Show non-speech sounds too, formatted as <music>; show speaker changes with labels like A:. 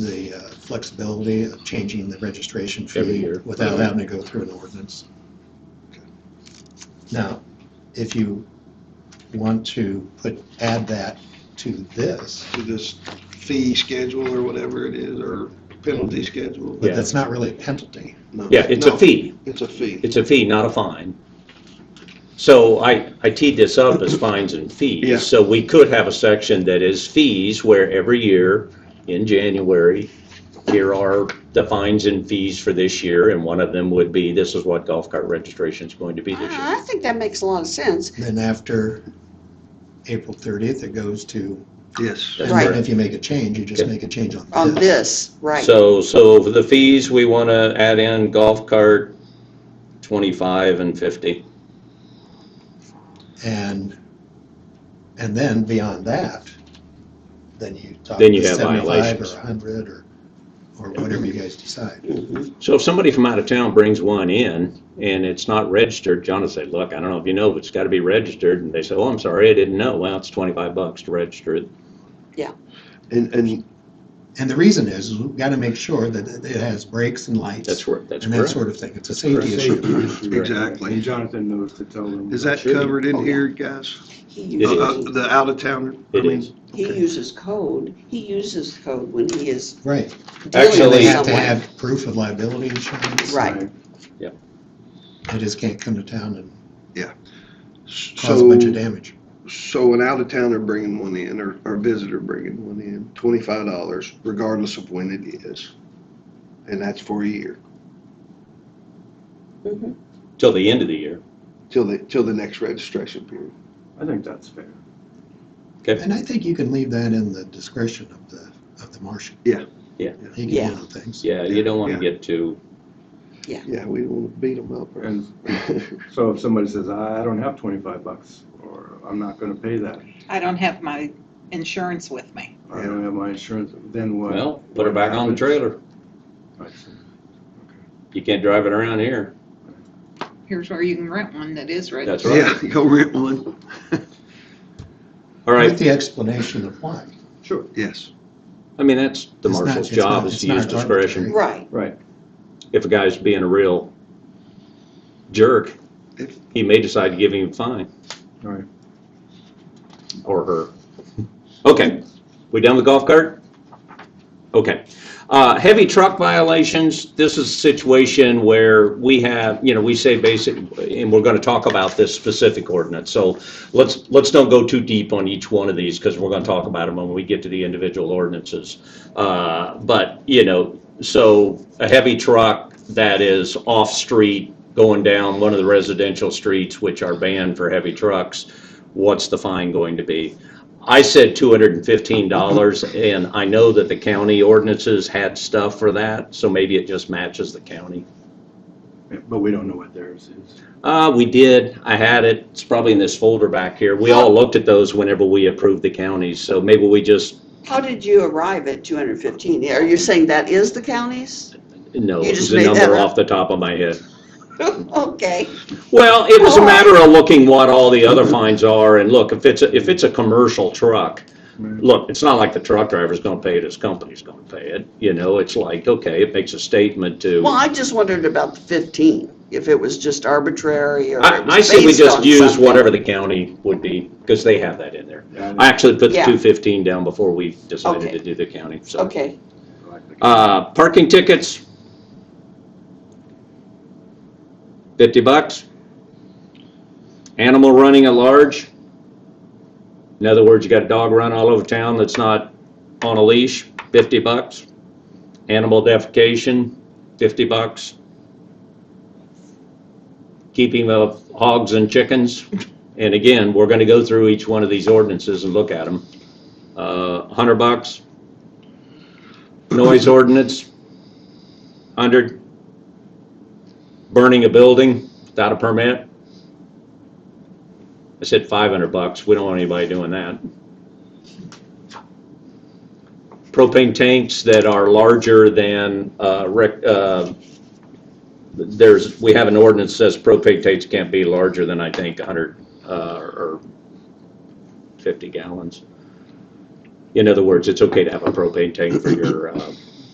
A: the uh, flexibility of changing the registration fee.
B: Every year.
A: Without having to go through an ordinance. Now, if you want to put, add that to this,
C: to this fee schedule or whatever it is, or penalty schedule?
A: but
B: Yeah.
A: that's not really a penalty.
C: No.
B: Yeah, it's a
C: No,
B: fee.
C: It's a fee.
B: It's a fee, not a fine. So I, I teed this up as fines and
C: Yeah.
B: fees. So we could have a section that is fees where every year in January, here are the fines and fees for this year. And one of them would be, this is what golf cart registration is going to be this year.
D: I think that makes a lot of sense.
A: Then after April 30th, it goes to,
C: Yes.
B: That's
A: and then
B: correct.
A: if you make a change, you just
B: Okay.
A: make a change on this.
D: On this, right.
B: So, so for the fees, we want to add in golf cart 25 and 50.
A: And, and then beyond that, then you talk
B: Then you
A: to
B: have
A: 75 or
B: violations.
A: 100 or, or whatever you guys decide.
B: So if somebody from out of town brings one in and it's not registered, John will say, look, I don't know if you know, but it's got to be registered. And they say, oh, I'm sorry, I didn't know. Well, it's 25 bucks to register it.
C: And, and
A: And the reason is, is we've got to make sure that it has brakes and lights.
B: That's where, that's
A: And that
B: correct.
A: sort of thing. It's a safety issue.
C: exactly.
E: And Jonathan knows to tell them.
C: Is that
B: Sure.
C: covered in
D: Oh,
C: here, guys?
D: He
B: It
C: Uh,
B: is.
D: uses,
C: uh, The out of town?
B: It is.
D: he uses code, he uses code when he is
A: Right.
D: dealing
A: They
D: with
B: Actually-
A: have to
D: someone.
A: have proof of liability insurance.
D: Right,
A: They just can't come to town and cause a bunch of
C: So,
A: damage.
C: so an out of towner bringing one in, or, or a visitor bringing one in, twenty-five dollars regardless of when it is. And that's for a year,
D: Mhm.
B: Till the end of the year.
C: till the, till the next registration period.
E: I think that's fair.
A: And I think you can leave that in the discretion of the, of the marshal.
C: Yeah.
B: Yeah.
A: He can
D: Yeah.
A: handle things.
B: Yeah, you don't want
C: Yeah.
B: to get too,
C: Yeah, we don't want to beat them up. or-
E: And so if somebody says, I don't have twenty-five bucks, or I'm not gonna pay that,
F: I don't have my insurance with me.
E: I don't have my insurance, then what?
B: well, put her back on the trailer.
E: I see.
B: You can't drive it around here.
F: Here's where you can rent one that is
B: That's
F: registered.
B: right.
C: <laughs> Yeah, go rent one. <laughs>
B: All
A: With
B: right,
A: the explanation of why.
E: Sure,
C: Yes.
B: I mean, that's the
A: It's not-
B: marshal's
A: it's
B: job
A: not-
B: is
A: it's
B: to
A: not
B: use discretion.
A: arbitrary.
D: right.
E: right,
B: If a guy's being a real jerk,
C: If-
B: he may decide to give him a fine
E: all right.
B: or her. Okay, we done with golf cart? Okay. Uh, heavy truck violations, this is a situation where we have, you know, we say basic, and we're gonna talk about this specific ordinance. So let's, let's don't go too deep on each one of these, because we're gonna talk about them when we get to the individual ordinances. Uh, but, you know, so a heavy truck that is off-street, going down one of the residential streets, which are banned for heavy trucks, what's the fine going to be? I said two hundred and fifteen dollars, and I know that the county ordinances had stuff for that, so maybe it just matches the county.
E: Yeah, But we don't know what theirs is.
B: Uh, we did, I had it, it's probably in this folder back here. We all looked at those whenever we approved the counties, so maybe we just,
D: How did you arrive at 215? Are you saying that is the county's? <laughs>
B: no,
D: You
B: it was
D: just
B: a
D: made that
B: number
D: up.
B: off the top of my head.
D: Okay,
B: Well, it was a
D: All right.
B: matter of looking what all the other fines are, and look, if it's, a if it's a commercial truck, look, it's not like the truck driver's gonna pay it, his company's gonna pay it, you know, it's like, okay, it makes a statement to.
D: well, I just wondered about the 15, if it was just arbitrary or
B: I,
D: it
B: I
D: was
B: say we
D: based
B: just
D: on
B: use
D: something.
B: whatever the county would be, because they have that in there.
E: Yeah,
B: I actually put the
D: Yeah.
B: two fifteen down before we decided
D: Okay.
B: to do the county, so.
D: Okay,
E: like the-
B: Uh, parking tickets. Fifty bucks. Animal running at large. In other words, you got a dog run all over town that's not on a leash, fifty bucks. Animal defecation, fifty bucks. Keeping of hogs and chickens. And again, we're gonna go through each one of these ordinances and look at them. Uh, hundred bucks noise ordinance, 100. Burning a building without a permit. I said 500 bucks, we don't want anybody doing that. Propane tanks that are larger than, uh, rec- uh, there's, we have an ordinance that says propane tanks can't be larger than, I think, 100 uh, or 50 gallons. In other words, it's okay to have a propane tank for your uh,